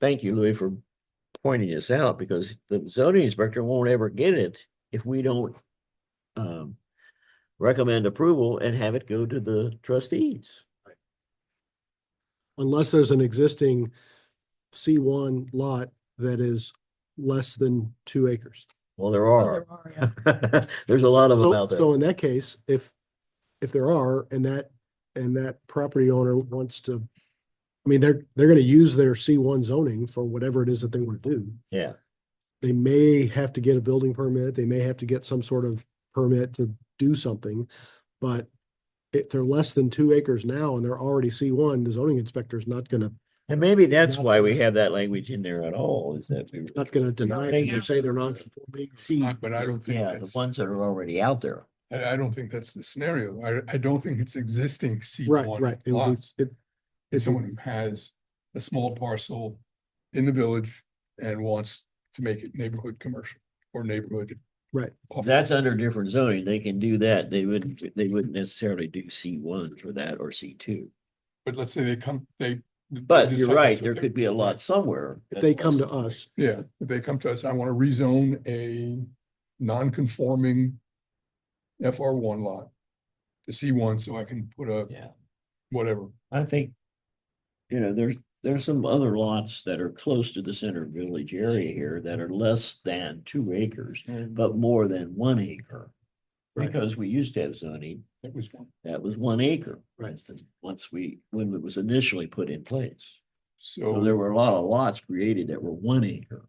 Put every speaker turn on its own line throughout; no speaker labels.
thank you, Louis, for pointing this out because the zoning inspector won't ever get it if we don't um, recommend approval and have it go to the trustees.
unless there's an existing C one lot that is less than two acres.
Well, there
Oh,
are.
there are, yeah.
There's a lot of them
So,
out there.
so in that case, if, if there are, and that, and that property owner wants to, I mean, they're, they're gonna use their C one zoning for whatever it is that they want to do.
Yeah,
They may have to get a building permit, they may have to get some sort of permit to do something, but if they're less than two acres now and they're already C one, the zoning inspector is not gonna,
and maybe that's why we have that language in there at all, is that we,
not gonna deny
they
it, or
use-
say they're not conforming.
see.
Uh, But I don't think
Yeah, the
that's,
ones that are already out there.
I, I don't think that's the scenario. I, I don't think it's existing C
Right,
one
right. It would be,
lots.
it,
It's
it's,
someone who has a small parcel in the village and wants to make it neighborhood commercial or neighborhood.
Right.
office.
That's under different zoning. They can do that. They wouldn't, they wouldn't necessarily do C one for that or C two.
But let's say they come, they.
But you're right, there could be a lot somewhere.
if they
that's
come
less
to
than-
us,
Yeah, if they come to us, I want to rezone a non-conforming FR one lot to C one so I can put a
Yeah,
whatever.
I think, you know, there's, there's some other lots that are close to the center village area here that are less than two acres, but more than one acre.
Right.
Because we used to have zoning
That was one.
that was one acre, for
Right.
instance, once we, when it was initially put in place. So
So,
there were a lot of lots created that were one acre.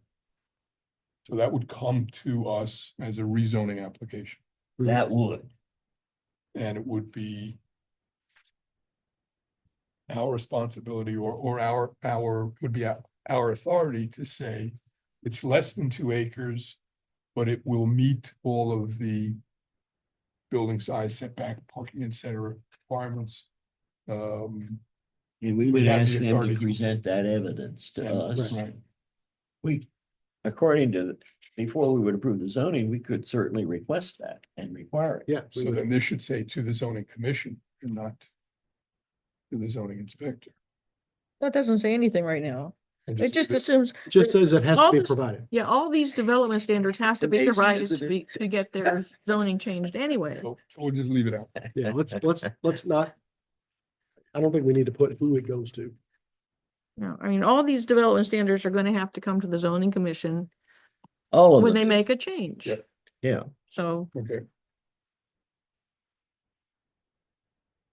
so that would come to us as a rezoning application
Mhm.
That would,
and it would be our responsibility or, or our, our, would be our, our authority to say it's less than two acres, but it will meet all of the building size setback, parking, et cetera, requirements. Um,
and we
We
would
have
ask
the
them
authority
to
to-
present that evidence to
and-
us.
right.
We, according to, before we would approve the zoning, we could certainly request that and require it.
yeah. we
So
would-
then this should say to the zoning commission and not to the zoning inspector.
That doesn't say anything right now.
And
It just assumes,
Just says it has to
all
be
this-
provided.
yeah, all these development standards has to
The
be
basin
revised
is a
to
bit-
be, to get their zoning changed anyway.
So so we'll just leave it out.
Yeah, let's, let's, let's not. I don't think we need to put who it goes to.
No, I mean, all these development standards are gonna have to come to the zoning commission
All of
when
them,
they make a change.
Yeah.
yeah.
So,
Okay.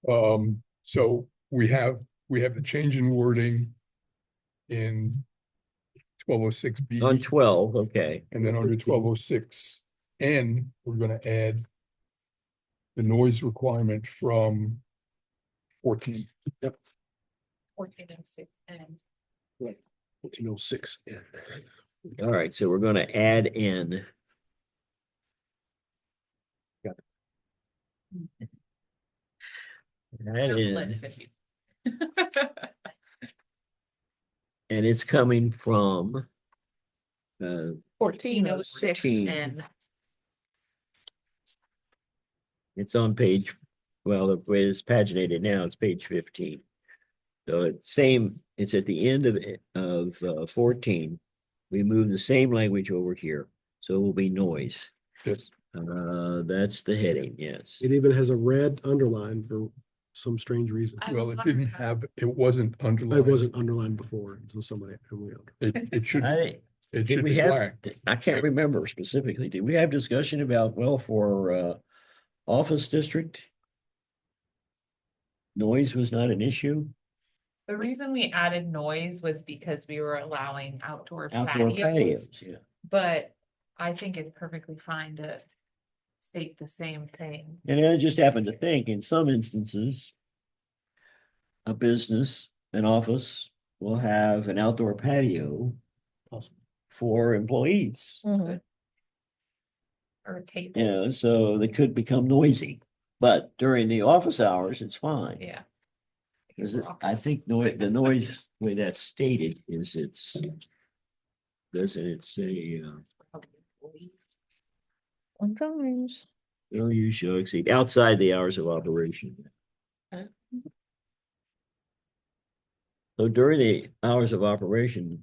Um, so we have, we have the change in wording in twelve oh six B
On twelve, okay.
and then under twelve oh six N, we're gonna add the noise requirement from fourteen.
fourteen oh six and
You know, six.
All right, so we're gonna add in. Add in,
fifty.
and it's coming from. Uh,
fourteen oh six,
and
It's on page, well, the way it's paginated now, it's page fifteen. So it's same, it's at the end of, it- of uh, fourteen. We move the same language over here, so it will be noise.
Yes.
Uh, that's the heading, yes.
It even has a red underline for some strange reason.
I
Well,
was
it didn't
wondering how-
have, it wasn't
It
underlined.
wasn't underlined before until somebody. who we-
It, it should,
I, think-
it
did
should
we
be
have,
black.
I can't remember specifically, did we have discussion about, well, for, uh, office district? Noise was not an issue?
the reason we added noise was because we were allowing outdoor
Outdoor
patios.
patios, yeah.
But I think it's perfectly fine to state the same thing.
And I just happen to think in some instances. A business, an office will have an outdoor patio.
Possible.
For employees,
mhm,
Or tape,
you know, so they could become noisy, but during the office hours, it's fine.
yeah.
'Cause it- I think noi- the noise, the way that's stated is it's. Doesn't it say, uh,
sometimes.
no use shall exceed outside the hours of operation?
Huh?
So during the hours of operation,